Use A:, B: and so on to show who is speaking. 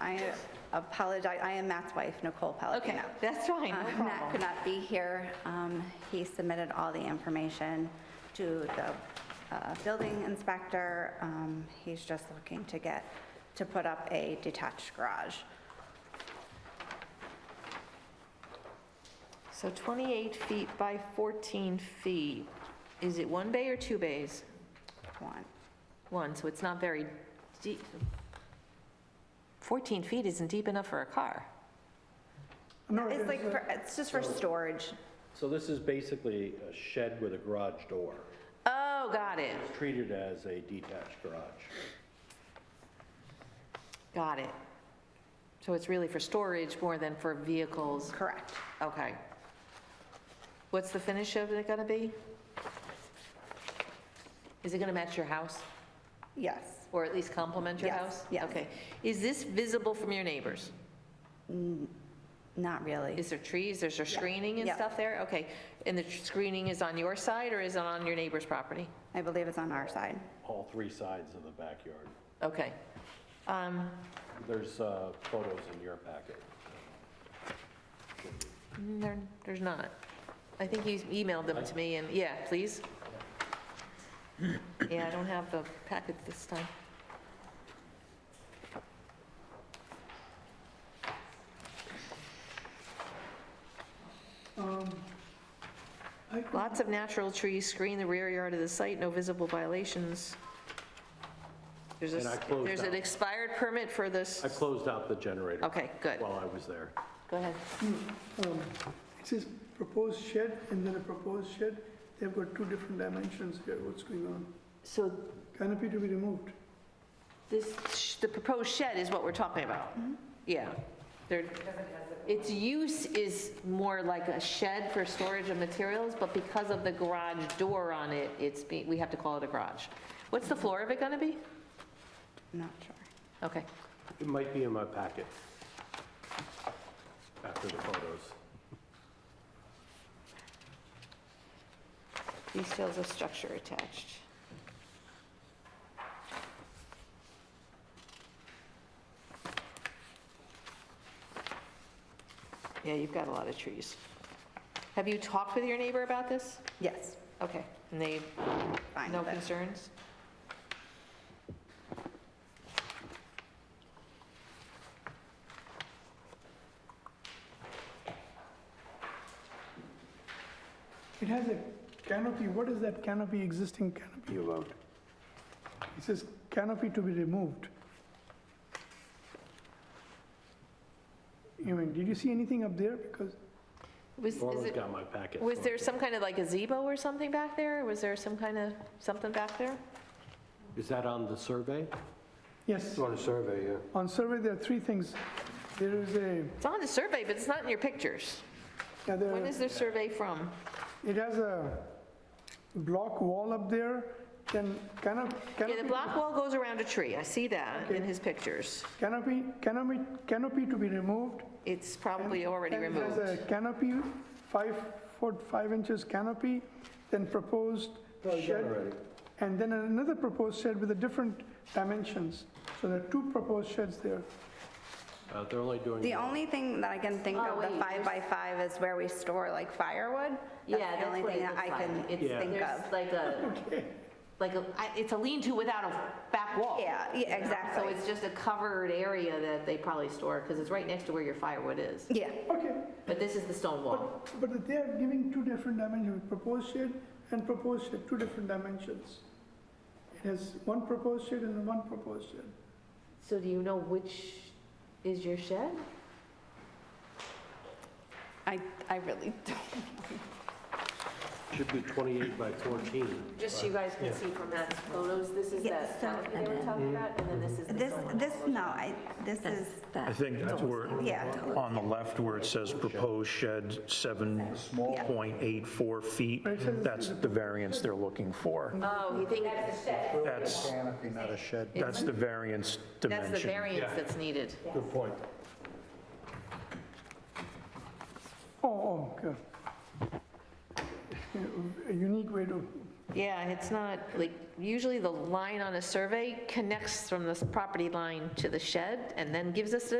A: I apologize, I am Matt's wife, Nicole
B: Okay,
A: Palladino.
B: that's fine,
A: Uh,
B: no
A: Matt could
B: problem.
A: not be here. Um, He submitted all the information to the uh, building inspector. Um, He's just looking to get, to put up a detached garage.
B: So 28 feet by 14 feet, is it one bay or two bays?
A: One.
B: One, so it's not very deep. 14 feet isn't deep enough for a car.
C: No,
A: It's like, for- it's just for storage.
D: So this is basically a shed with a garage door,
B: Oh, got it,
D: treated as a detached garage.
B: got it. So it's really for storage more than for vehicles?
A: Correct.
B: Okay. What's the finish of it gonna be? Is it gonna match your house,
A: Yes.
B: or at least complement your
A: Yes,
B: house?
A: yes.
B: Okay. Is this visible from your neighbors?
A: Not really.
B: Is there trees, there's there screening and
A: yeah.
B: stuff there? Okay. And the tr- screening is on your side, or is it on your neighbor's property?
A: I believe it's on our side.
D: All three sides of the backyard.
B: Okay. Um,
D: There's uh, photos in your packet.
B: mm, there- There's not. I think you emailed them to me, and, yeah, please. Yeah, I don't have the packet this time. Lots of natural trees screen the rear yard of the site, no visible violations. There's
D: And I
B: a,
D: closed
B: there's an
D: out.
B: expired permit for this,
D: I closed out the generator.
B: Okay, good.
D: While I was there.
B: go ahead.
C: It says proposed shed and then a proposed shed. They've got two different dimensions here. What's going on?
B: So
C: Canopy to be removed.
B: this, sh- the proposed shed is what we're talking about? Yeah. There- Its use is more like a shed for storage of materials, but because of the garage door on it, it's, be- we have to call it a garage. What's the floor of it going to be?
A: I'm not sure.
B: Okay.
D: It might be in my packet after the photos.
B: Details of structure attached. Yeah, you've got a lot of trees. Have you talked with your neighbor about this?
A: Yes,
B: Okay, and they,
A: fine
B: no
A: with it.
B: concerns?
C: It has a canopy. What is that canopy, existing canopy about? It says canopy to be removed. You mean, did you see anything up there? Because
B: Was, is
D: Norman's
B: it,
D: got my packet.
B: was there some kind of like a gazebo or something back there? Was there some kind of, something back there?
D: Is that on the survey?
C: Yes,
E: On a survey, yeah.
C: on survey, there are three things. There is a,
B: It's on the survey, but it's not in your pictures.
C: yeah, there-
B: When is the survey from?
C: it has a block wall up there, then canop- canopy.
B: Yeah, the block wall goes around a tree, I see that in
C: Okay.
B: his pictures.
C: Canopy, canopy, canopy to be removed.
B: It's probably already
C: And it has
B: removed.
C: a canopy, five foot, five inches canopy, then proposed shed. And then another proposed shed with a different dimensions. So there are two proposed sheds there.
D: Uh, They're only doing.
A: The only thing that I can think
B: Oh,
A: of, the
B: wait,
A: five by five is where we store like firewood. the only thing that I can
D: Yeah.
A: think of.
B: like a, like a, I- it's a lean-to without a back wall.
A: Yeah, yeah,
B: So
A: exactly.
B: it's just a covered area that they probably store, because it's right next to where your firewood is.
A: Yeah,
C: Okay,
B: But this is the stone wall.
C: but, but they are giving two different dimensions, proposed shed and proposed shed, two different dimensions. It has one proposed shed and one proposed shed.
B: So do you know which is your shed?
A: I, I really don't.
D: Should be 28 by 14.
B: Just so you guys can see from Matt's photos, this is
A: Yeah,
B: that
A: so-
B: canopy they were talking about, and then this is the
A: This,
B: stone wall.
A: this, no, I, this is,
F: I think that's where,
A: yeah,
F: on the left where it says proposed shed 7.84 feet, that's the variance they're looking for.
B: Oh, you think,
F: That's,
E: Not a shed.
F: that's the variance
B: that's the
F: dimension.
B: variance that's needed.
D: Good point.
C: Oh, oh, okay. A unique way to
B: Yeah, it's not, like, usually the line on a survey connects from this property line to the shed, and then gives us the